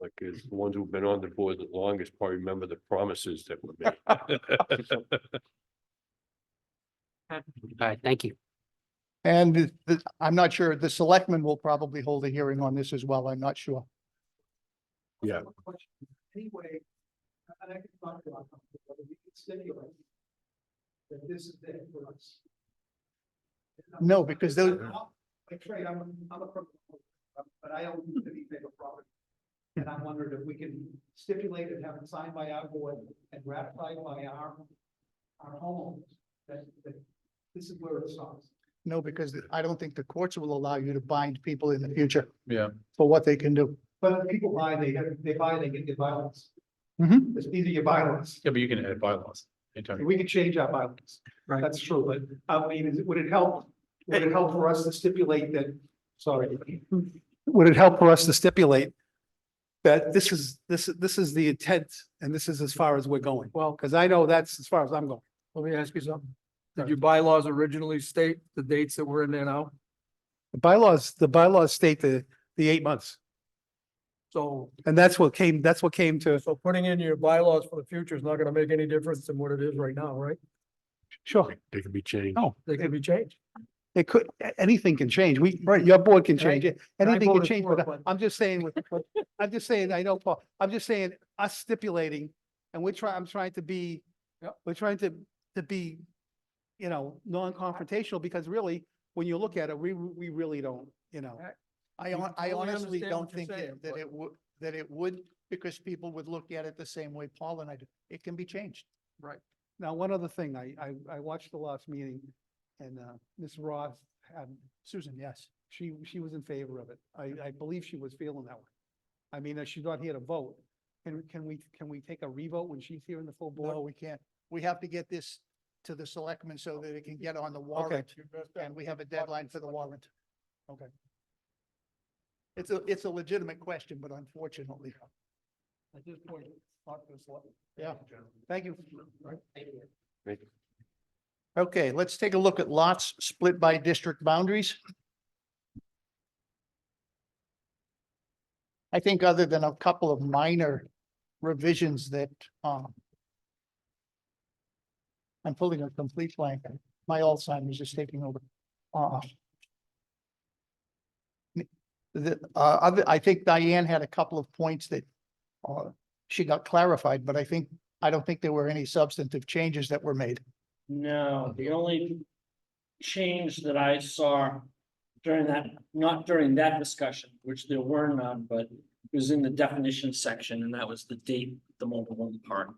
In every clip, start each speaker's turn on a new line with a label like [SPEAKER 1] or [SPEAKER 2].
[SPEAKER 1] Like, it's the ones who've been on the board the longest probably remember the promises that were made.
[SPEAKER 2] All right, thank you.
[SPEAKER 3] And the- the- I'm not sure, the selectmen will probably hold a hearing on this as well. I'm not sure.
[SPEAKER 1] Yeah.
[SPEAKER 4] Anyway, and I can talk about something, but we can stipulate that this is there for us.
[SPEAKER 3] No, because those-
[SPEAKER 4] Like Trey, I'm, I'm a, pro- but I own the paper property. And I'm wondering if we can stipulate and have it signed by our board and ratified by our, our homeowners, that, that this is where it starts.
[SPEAKER 3] No, because the- I don't think the courts will allow you to bind people in the future
[SPEAKER 1] Yeah.
[SPEAKER 3] for what they can do.
[SPEAKER 4] But if people buy, they, get- they buy, they get their violence.
[SPEAKER 3] Mhm.
[SPEAKER 4] It's either your violence.
[SPEAKER 5] Yeah, but you can add bylaws. anytime.
[SPEAKER 4] We could change our bylaws.
[SPEAKER 3] Right.
[SPEAKER 4] That's true, but I mean, is- would it help, would it help for us to stipulate that, sorry. Would it help for us to stipulate that this is, this, this is the intent and this is as far as we're going? Well. Because I know that's as far as I'm going.
[SPEAKER 6] Let me ask you something. Did your bylaws originally state the dates that were in there now?
[SPEAKER 4] The bylaws, the bylaws state the, the eight months.
[SPEAKER 6] So,
[SPEAKER 4] And that's what came, that's what came to,
[SPEAKER 6] so putting in your bylaws for the future is not gonna make any difference than what it is right now, right?
[SPEAKER 4] sure,
[SPEAKER 1] They can be changed.
[SPEAKER 6] They can be changed.
[SPEAKER 4] it could, a- anything can change. We, your board can
[SPEAKER 6] And I-
[SPEAKER 4] change it.
[SPEAKER 6] I
[SPEAKER 4] Anything can
[SPEAKER 6] voted
[SPEAKER 4] change,
[SPEAKER 6] for it,
[SPEAKER 4] but
[SPEAKER 6] but-
[SPEAKER 4] I'm just saying, with- with- I'm just saying, I know, Paul, I'm just saying, us stipulating, and we're trying, I'm trying to be,
[SPEAKER 6] Yep.
[SPEAKER 4] we're trying to, to be, you know, non-confrontational, because really, when you look at it, we, we really don't, you know.
[SPEAKER 6] Right.
[SPEAKER 3] I
[SPEAKER 6] You
[SPEAKER 3] hon- I
[SPEAKER 6] totally
[SPEAKER 3] honestly
[SPEAKER 6] understand
[SPEAKER 3] don't
[SPEAKER 6] what you're
[SPEAKER 3] think that
[SPEAKER 6] saying,
[SPEAKER 3] that
[SPEAKER 6] but-
[SPEAKER 3] it would, that it would, because people would look at it the same way Paul and I do. It can be changed.
[SPEAKER 6] Right.
[SPEAKER 3] Now, one other thing, I, I, I watched the last meeting and, uh, Ms. Roth, had Susan, yes, she, she was in favor of it. I, I believe she was feeling that way. I mean, uh, she's not here to vote. Can, can we, can we take a revote when she's here in the full board? No, we can't. We have to get this to the selectmen so that it can get on the warrant. And we have a deadline for the warrant. Okay. It's a, it's a legitimate question, but unfortunately. At this point, not this one. Yeah, thank you.
[SPEAKER 1] Thank you.
[SPEAKER 3] Okay, let's take a look at lots split by district boundaries. I think other than a couple of minor revisions that, um, I'm pulling a complete blank. My Alzheimer's is taking over. Uh, the, uh, other, I think Diane had a couple of points that, uh, she got clarified, but I think, I don't think there were any substantive changes that were made.
[SPEAKER 7] No, the only change that I saw during that, not during that discussion, which there were none, but it was in the definition section, and that was the date, the mobile home park.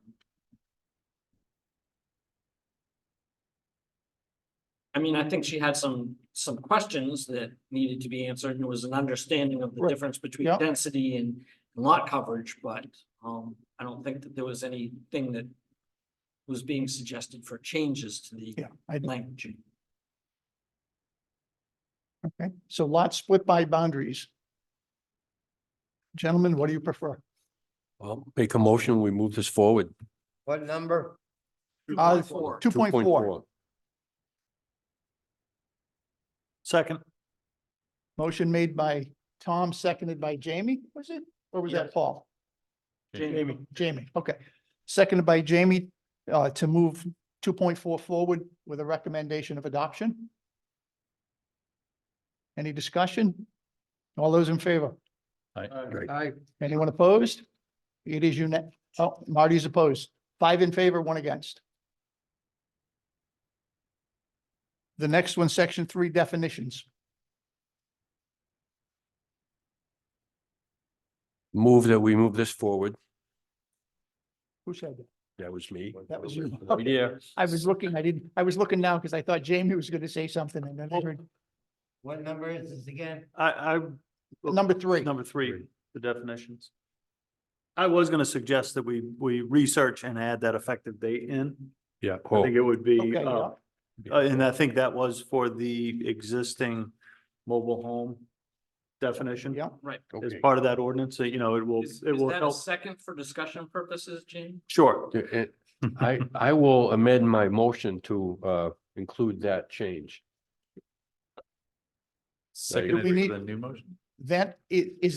[SPEAKER 7] I mean, I think she had some, some questions that needed to be answered, and it was an understanding of the
[SPEAKER 3] Right.
[SPEAKER 7] difference between
[SPEAKER 3] Yeah.
[SPEAKER 7] density and lot coverage, but, um, I don't think that there was anything that was being suggested for changes to the
[SPEAKER 3] Yeah, I,
[SPEAKER 7] language.
[SPEAKER 3] okay, so lots split by boundaries. Gentlemen, what do you prefer?
[SPEAKER 1] Well, make a motion, we move this forward.
[SPEAKER 8] What number?
[SPEAKER 3] Uh,
[SPEAKER 7] 2.4.
[SPEAKER 3] Two point four,
[SPEAKER 6] Second.
[SPEAKER 3] motion made by Tom, seconded by Jamie, was it? Or was that
[SPEAKER 7] Yes.
[SPEAKER 3] Paul?
[SPEAKER 7] Jamie,
[SPEAKER 3] Jamie, okay. Seconded by Jamie, uh, to move two point four forward with a recommendation of adoption. Any discussion? All those in favor?
[SPEAKER 6] I,
[SPEAKER 3] Anyone opposed? It is unan, oh, Marty's opposed. Five in favor, one against. The next one, section three definitions.
[SPEAKER 1] Move that we move this forward.
[SPEAKER 3] Who said that?
[SPEAKER 1] That was me.
[SPEAKER 3] That was you.
[SPEAKER 1] Yeah.
[SPEAKER 3] I was looking, I didn't, I was looking now because I thought Jamie was going to say something and then I heard
[SPEAKER 8] What number is this again?
[SPEAKER 9] I, I,
[SPEAKER 3] number three.
[SPEAKER 9] number three, the definitions. I was gonna suggest that we, we research and add that effective date in.
[SPEAKER 1] Yeah.
[SPEAKER 9] I think it would
[SPEAKER 3] Okay,
[SPEAKER 9] be,
[SPEAKER 3] yeah.
[SPEAKER 9] uh, uh, and I think that was for the existing mobile home definition.
[SPEAKER 3] Yeah.
[SPEAKER 7] right.
[SPEAKER 9] As
[SPEAKER 1] Okay.
[SPEAKER 9] part of that ordinance, so, you know, it will,
[SPEAKER 7] Is
[SPEAKER 9] it
[SPEAKER 7] is
[SPEAKER 9] will
[SPEAKER 7] that a
[SPEAKER 9] help.
[SPEAKER 7] second for discussion purposes, Jamie?
[SPEAKER 9] Sure.
[SPEAKER 1] Yeah, it- I, I will amend my motion to uh, include that change.
[SPEAKER 5] Seconded
[SPEAKER 3] we
[SPEAKER 5] for
[SPEAKER 3] need-
[SPEAKER 5] the new motion?
[SPEAKER 3] That, i- is